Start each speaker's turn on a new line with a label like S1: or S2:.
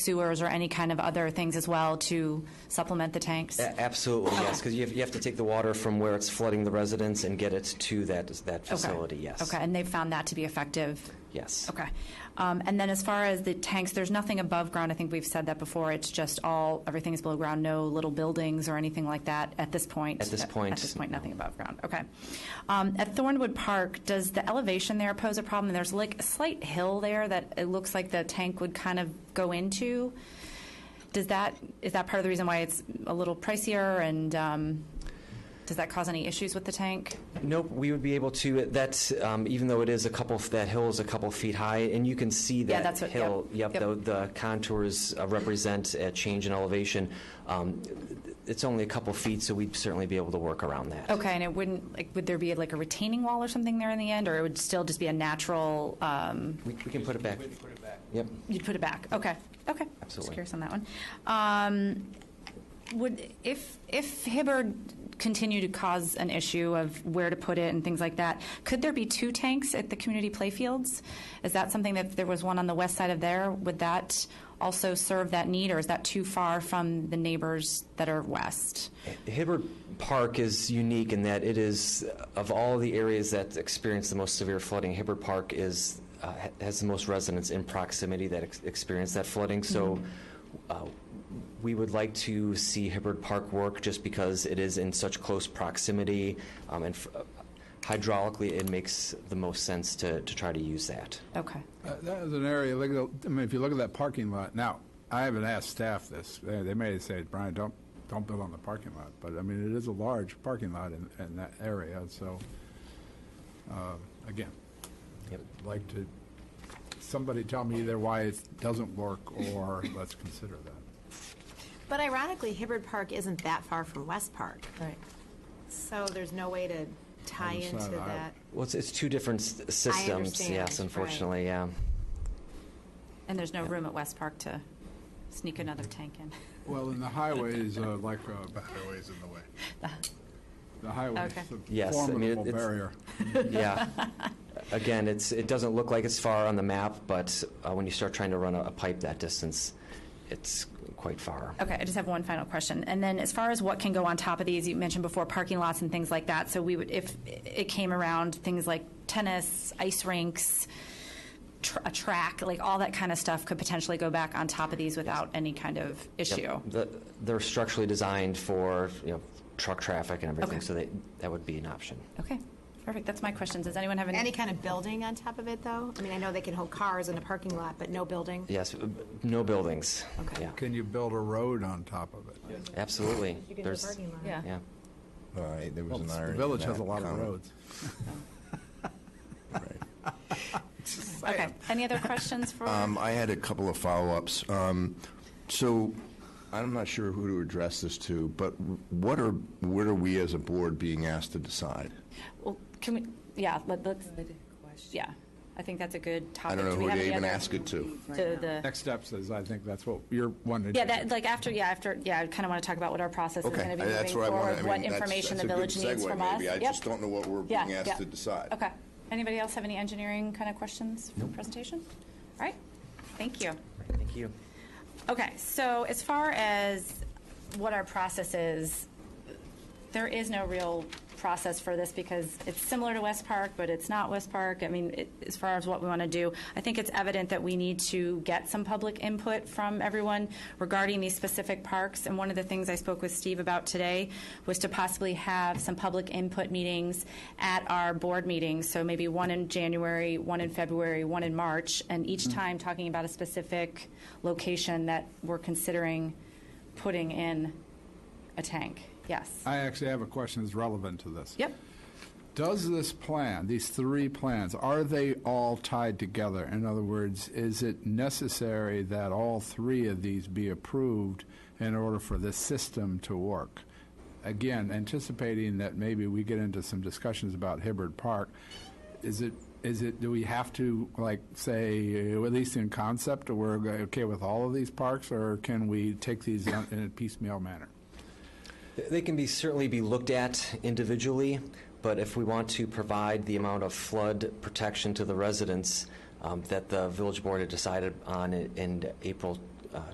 S1: sewers or any kind of other things as well to supplement the tanks?
S2: A- Absolutely, yes, because you have, you have to take the water from where it's flooding the residents and get it to that, that
S1: Okay.
S2: facility, yes.
S1: Okay, and they've found that to be effective?
S2: Yes.
S1: Okay. Um, And then as far as the tanks, there's nothing above ground. I think we've said that before. It's just all, everything is below ground, no little buildings or anything like that at this point?
S2: At this point,
S1: At this point,
S2: no.
S1: nothing above ground. Okay. Um, At Thornwood Park, does the elevation there pose a problem? There's like a slight hill there that it looks like the tank would kind of go into. Does that, is that part of the reason why it's a little pricier? And um, does that cause any issues with the tank?
S2: Nope, we would be able to, that's, um, even though it is a couple, that hill is a couple feet high, and you can see
S1: Yeah,
S2: that
S1: that's what- yep,
S2: hill.
S1: yep.
S2: the- The contours uh, represent a change in elevation. Um, It's only a couple feet, so we'd certainly be able to work around that.
S1: Okay, and it wouldn't, like, would there be like a retaining wall or something there in the end, or it would still just be a natural, um,
S2: We we can put it back. We can put it back. Yep.
S1: you'd put it back? Okay, okay. Just
S2: Absolutely.
S1: curious on that one. Um, Would, if, if Hibbard continued to cause an issue of where to put it and things like that, could there be two tanks at the community playfields? Is that something that if there was one on the west side of there, would that also serve that need, or is that too far from the neighbors that are west?
S2: Hibbert Park is unique in that it is, of all the areas that experience the most severe flooding, Hibbert Park is, uh, ha- has the most residents in proximity that ex- experience that flooding. So
S3: Mm-hmm.
S2: uh, we would like to see Hibbert Park work just because it is in such close proximity. um, And f- hydraulically, it makes the most sense to, to try to use that.
S1: Okay.
S4: Uh, That is an area, look at, the- I mean, if you look at that parking lot, now, I haven't asked staff this, they, they may say, Brian, don't, don't build on the parking lot, but I mean, it is a large parking lot in, in that area, so, uh, again,
S2: Yep.
S4: I'd like to, somebody tell me either why it doesn't work, or let's consider that.
S3: But ironically, Hibbard Park isn't that far from West Park,
S1: Right.
S3: so there's no way to tie
S4: Other
S3: into
S4: side, I-
S3: that.
S2: Well, it's, it's two different s- systems,
S3: understand,
S2: yes,
S3: right.
S2: unfortunately, yeah.
S1: And there's no room at West Park to sneak another tank in?
S4: Well, and the highways, uh, like, uh, the highway's in the way. The highway's
S1: Okay.
S4: a
S2: Yes, I mean,
S4: formidable
S2: it's-
S4: barrier.
S2: Yeah. Again, it's, it doesn't look like it's far on the map, but uh, when you start trying to run a, a pipe that distance, it's quite far.
S1: Okay, I just have one final question. And then as far as what can go on top of these, you mentioned before parking lots and things like that. So we would, if it came around, things like tennis, ice rinks, tr- a track, like all that kind of stuff could potentially go back on top of these without any kind of issue.
S2: Yep. The, they're structurally designed for, you know, truck traffic and everything,
S1: Okay.
S2: so they, that would be an option.
S1: Okay, perfect. That's my questions. Does anyone have any?
S3: Any kind of building on top of it, though? I mean, I know they can hold cars in a parking lot, but no building?
S2: Yes, uh, no buildings.
S3: Okay.
S2: Yeah,
S4: Can you build a road on top of it?
S2: absolutely.
S3: You can do a
S2: There's-
S3: parking lot.
S1: Yeah.
S2: Yeah.
S5: All right, there was
S4: Well,
S5: an
S4: The
S5: irony. in
S4: village has
S5: that
S4: a lot of
S5: comment.
S4: roads.
S5: Right.
S1: Okay. Any other questions for?
S5: Um, I had a couple of follow-ups. Um, So I'm not sure who to address this to, but what are, what are we as a board being asked to decide?
S1: Well, can we, yeah, let, let's, yeah. I think that's a good topic.
S5: I don't know
S1: Do we
S5: who
S1: have
S5: to
S1: any
S5: even
S1: other-
S5: ask it to.
S1: The, the.
S4: Next steps is, I think that's what you're wanting to do.
S1: Yeah, that, like after, yeah, after, yeah, I kind of want to talk about what our process is
S5: Okay,
S1: going to be
S5: I- that's
S1: moving
S5: what I want,
S1: forward,
S5: I
S1: what
S5: mean, that's,
S1: information
S5: that's
S1: the
S5: a good
S1: village needs
S5: segue
S1: from us.
S5: maybe. I
S1: Yep.
S5: just don't know what we're
S1: Yeah,
S5: being
S1: yeah.
S5: asked to decide.
S1: Okay. Anybody else have any engineering kind of questions for the presentation? All right, thank you.
S2: Thank you.
S1: Okay, so as far as what our process is, there is no real process for this because it's similar to West Park, but it's not West Park. I mean, it- as far as what we want to do, I think it's evident that we need to get some public input from everyone regarding these specific parks. And one of the things I spoke with Steve about today was to possibly have some public input meetings at our board meetings. So maybe one in January, one in February, one in March, and each time talking about a specific location that we're considering putting in a tank. Yes.
S4: I actually have a question that's relevant to this.
S1: Yep.
S4: Does this plan, these three plans, are they all tied together? In other words, is it necessary that all three of these be approved in order for this system to work? Again, anticipating that maybe we get into some discussions about Hibbard Park, is it, is it, do we have to, like, say, uh, at least in concept, we're go- okay with all of these parks, or can we take these on- in a piecemeal manner?
S2: They can be, certainly be looked at individually, but if we want to provide the amount of flood protection to the residents um, that the village board had decided on i- in April